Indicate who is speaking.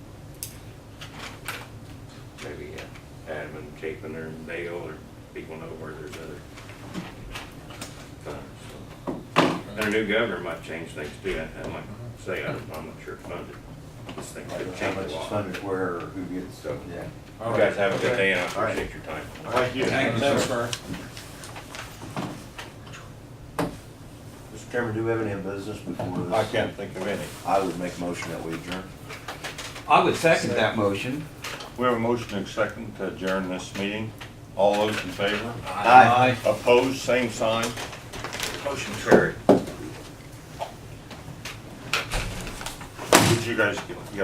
Speaker 1: uh, Chapin or Dale or people know where there's other funds. so. And our new governor might change things too, I I might say, I don't- I'm not sure it's funded. This thing
Speaker 2: I don't know
Speaker 1: could
Speaker 2: How
Speaker 1: change
Speaker 2: much
Speaker 1: a
Speaker 2: is
Speaker 1: lot. You
Speaker 2: funded where, or who gets stuff, yeah.
Speaker 1: guys have a good day and I
Speaker 2: All right.
Speaker 1: appreciate your time.
Speaker 2: Thank you.
Speaker 3: Thanks, sir.
Speaker 2: Mr. Chairman, do we have any business before this?
Speaker 4: I can't think of any.
Speaker 2: I would make a motion that we adjourn.
Speaker 3: I would second that motion.
Speaker 4: We have a motion and a second to adjourn this meeting. All those in favor?
Speaker 2: Aye.
Speaker 4: Opposed, same sign.
Speaker 1: Motion carried.
Speaker 4: Did you guys get, get